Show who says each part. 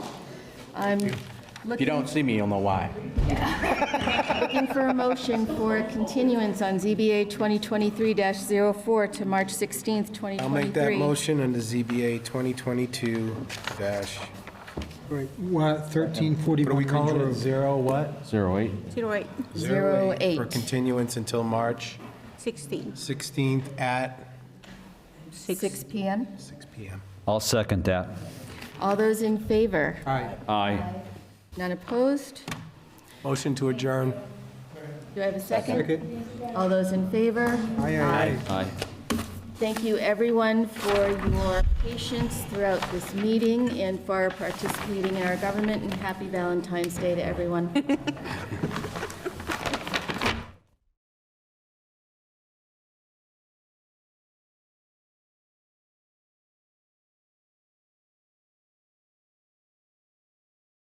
Speaker 1: I'm
Speaker 2: If you
Speaker 1: looking
Speaker 2: don't see me, you'll know why.
Speaker 1: looking for a motion for a continuance on ZBA 2023-04 to March 16th, 2023.
Speaker 3: I'll make that motion under ZBA 2022-
Speaker 4: Right, wa- 1341
Speaker 3: What do we call
Speaker 4: Ridge
Speaker 3: it?
Speaker 4: Road.
Speaker 3: Zero what?
Speaker 2: Zero eight?
Speaker 5: Zero eight,
Speaker 1: Zero eight.
Speaker 3: For continuance until March
Speaker 5: sixteen,
Speaker 3: 16th at
Speaker 5: six.
Speaker 1: Six PM.
Speaker 3: six PM.
Speaker 6: I'll second that.
Speaker 1: All those in favor?
Speaker 4: Aye.
Speaker 6: Aye.
Speaker 1: None opposed?
Speaker 3: Motion to adjourn.
Speaker 1: Do I have a second?
Speaker 4: Second.
Speaker 1: All those in favor?
Speaker 4: Aye, aye, aye.
Speaker 6: Aye.
Speaker 1: Thank you, everyone, for your patience throughout this meeting and for participating in our government, and happy Valentine's Day to everyone.